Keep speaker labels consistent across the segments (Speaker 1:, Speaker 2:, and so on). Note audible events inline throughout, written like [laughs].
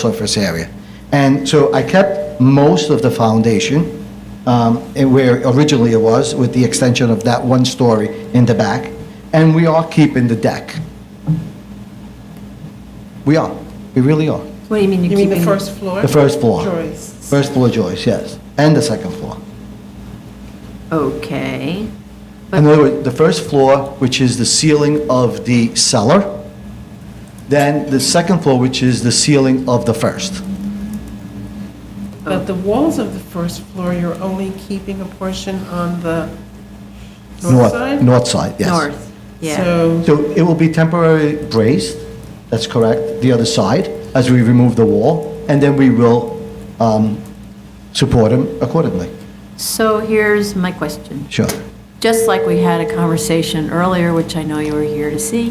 Speaker 1: surface area. And so I kept most of the foundation um, and where originally it was, with the extension of that one story in the back, and we are keeping the deck. We are, we really are.
Speaker 2: What do you mean you're
Speaker 3: You mean the
Speaker 2: keeping?
Speaker 3: first floor?
Speaker 1: The first floor.
Speaker 3: Joists.
Speaker 1: First floor joists, yes, and the second floor.
Speaker 2: Okay.
Speaker 1: In other words, the first floor, which is the ceiling of the cellar, then the second floor, which is the ceiling of the first.
Speaker 3: But the walls of the first floor, you're only keeping a portion on the north side?
Speaker 1: North side, yes.
Speaker 2: North, yeah.
Speaker 3: So,
Speaker 1: So it will be temporarily braced, that's correct, the other side, as we remove the wall, and then we will um, support them accordingly.
Speaker 2: So here's my question.
Speaker 1: Sure.
Speaker 2: Just like we had a conversation earlier, which I know you were here to see,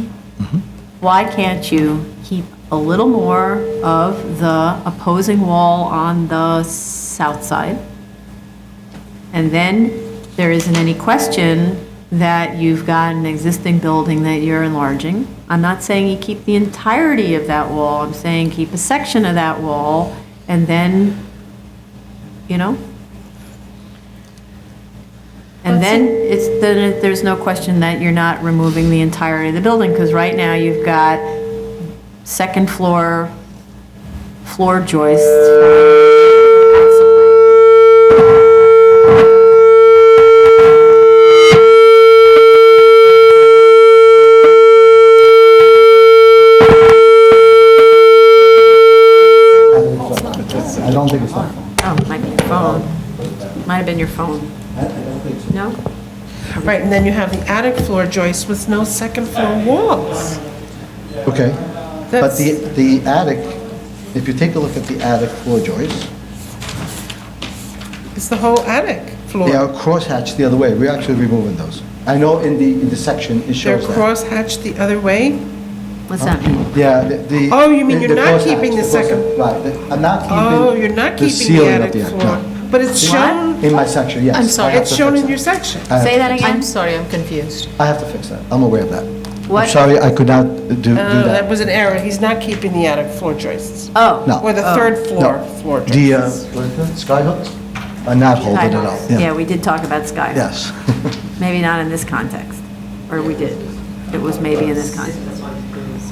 Speaker 2: why can't you keep a little more of the opposing wall on the south side? And then there isn't any question that you've got an existing building that you're enlarging. I'm not saying you keep the entirety of that wall, I'm saying keep a section of that wall, and then, you know? And then it's, then it- there's no question that you're not removing the entirety of the building, because right now you've got second floor, floor joists.
Speaker 1: I don't think it's that.
Speaker 2: Oh, it might be your phone. Might have been your phone. No?
Speaker 3: right, and then you have the attic floor joists with no second floor walls.
Speaker 1: Okay. But
Speaker 3: That's-
Speaker 1: the, the attic, if you take a look at the attic floor joists,
Speaker 3: It's the whole attic
Speaker 1: they are
Speaker 3: floor.
Speaker 1: crosshatched the other way. We're actually removing those. I know in the, in the section it
Speaker 3: They're
Speaker 1: shows that.
Speaker 3: crosshatched the other way?
Speaker 2: What's that mean?
Speaker 1: Yeah, the- the.
Speaker 3: Oh, you mean
Speaker 1: the- the
Speaker 3: you're not
Speaker 1: crosshatch,
Speaker 3: keeping the
Speaker 1: crosshatch,
Speaker 3: second-
Speaker 1: Right, the- I'm not keeping.
Speaker 3: Oh, you're not keeping the
Speaker 1: ceiling of
Speaker 3: attic floor.
Speaker 1: no.
Speaker 3: But it's shown,
Speaker 1: In my section, yes.
Speaker 4: I'm
Speaker 1: I
Speaker 4: sorry.
Speaker 1: have
Speaker 3: it's
Speaker 1: to
Speaker 3: shown
Speaker 1: fix
Speaker 3: in
Speaker 1: that.
Speaker 3: your section.
Speaker 1: I have
Speaker 2: Say
Speaker 1: to-
Speaker 2: that
Speaker 4: I'm
Speaker 2: again?
Speaker 4: sorry, I'm confused.
Speaker 1: I have to fix that. I'm aware of that. I'm
Speaker 2: What?
Speaker 1: sorry, I could not do, do
Speaker 3: Oh, that
Speaker 1: that.
Speaker 3: was an error. He's not keeping the attic floor joists.
Speaker 2: Oh.
Speaker 1: No.
Speaker 3: Or the
Speaker 2: Oh.
Speaker 3: third floor, floor
Speaker 1: The, uh,
Speaker 3: joists.
Speaker 1: what is that, sky hooks are not holding it up.
Speaker 2: Skyhawks. Yeah, we did talk about Skyhawks.
Speaker 1: Yes. [laughs]
Speaker 2: Maybe not in this context, or we did. It was maybe in this context.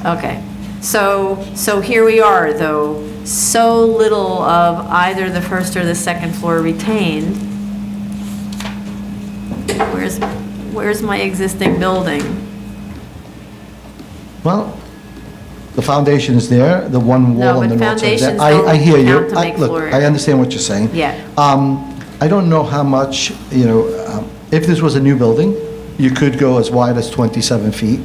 Speaker 2: Okay. So, so here we are, though, so little of either the first or the second floor retained. Where's, where's my existing building?
Speaker 1: Well, the foundation is there, the one
Speaker 2: No,
Speaker 1: wall on
Speaker 2: but
Speaker 1: the north side. is there.
Speaker 2: foundations
Speaker 1: I, I hear
Speaker 2: don't
Speaker 1: you.
Speaker 2: count to
Speaker 1: I-
Speaker 2: make
Speaker 1: Look,
Speaker 2: floor
Speaker 1: I
Speaker 2: area.
Speaker 1: understand what you're saying.
Speaker 2: Yeah.
Speaker 1: Um, I don't know how much, you know, um, if this was a new building, you could go as wide as 27 feet.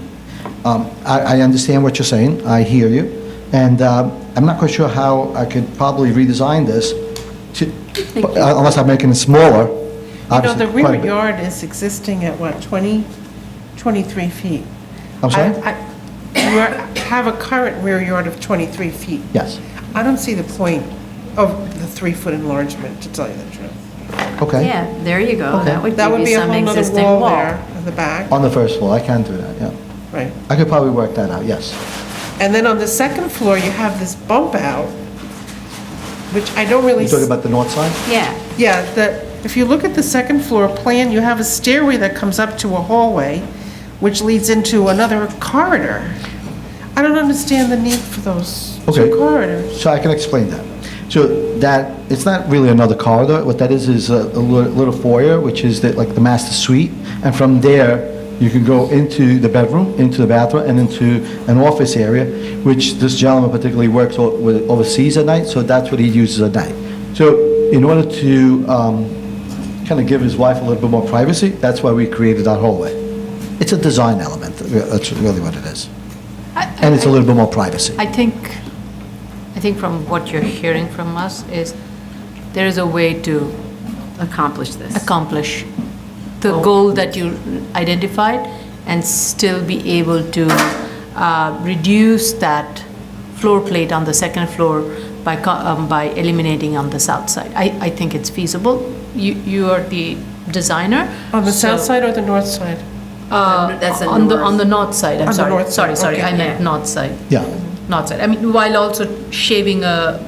Speaker 1: Um, I, I understand what you're saying, I hear you, and um, I'm not quite sure how I could probably redesign this to,
Speaker 2: Thank you.
Speaker 1: unless I'm making it smaller,
Speaker 3: You know, the
Speaker 1: obviously, quite a
Speaker 3: rear
Speaker 1: bit.
Speaker 3: yard is existing at what, 20, 23 feet?
Speaker 1: I'm sorry?
Speaker 3: I- I- You are- have a current rear yard of 23 feet.
Speaker 1: Yes,
Speaker 3: I don't see the point of the three-foot enlargement, to tell you the truth.
Speaker 1: okay.
Speaker 2: Yeah, there you go. That would
Speaker 3: That
Speaker 2: give
Speaker 3: would
Speaker 2: you
Speaker 3: be a
Speaker 2: some
Speaker 3: whole nother
Speaker 2: existing
Speaker 3: wall
Speaker 2: wall.
Speaker 3: there in the back,
Speaker 1: On the first floor, I can do that, yeah.
Speaker 3: right.
Speaker 1: I could probably work that out, yes.
Speaker 3: And then on the second floor, you have this bump out, which I don't really.
Speaker 1: You talking about the north side?
Speaker 2: Yeah.
Speaker 3: Yeah, the, if you look at the second floor plan, you have a stairway that comes up to a hallway, which leads into another corridor. I don't understand the need for those
Speaker 1: Okay.
Speaker 3: two corridors.
Speaker 1: So I can explain that. So that, it's not really another corridor, what that is, is a a li- little foyer, which is the- like the master suite, and from there, you can go into the bedroom, into the bathroom, and into an office area, which this gentleman particularly works o- with overseas at night, so that's what he uses at night. So in order to kind of give his wife a little bit more privacy, that's why we created that hallway. It's a design element, uh, that's really what it is. And it's a little bit more privacy.
Speaker 4: I think, I think from what you're hearing from us is there is a way to
Speaker 2: Accomplish this.
Speaker 4: accomplish
Speaker 3: Oh.
Speaker 4: the goal that you identified and still be able to uh, reduce that floor plate on the second floor by, co- um, by eliminating on the south side. I, I think it's feasible. You, you are the designer.
Speaker 3: On the south
Speaker 4: so-
Speaker 3: side or the north side?
Speaker 4: Uh,
Speaker 2: That's a
Speaker 4: On the,
Speaker 2: north.
Speaker 4: on the north side,
Speaker 3: On
Speaker 4: I'm
Speaker 3: the
Speaker 4: sorry.
Speaker 3: north side,
Speaker 4: Sorry, sorry,
Speaker 3: okay.
Speaker 4: I meant north side.
Speaker 1: Yeah.
Speaker 4: north side. I mean, while also shaving a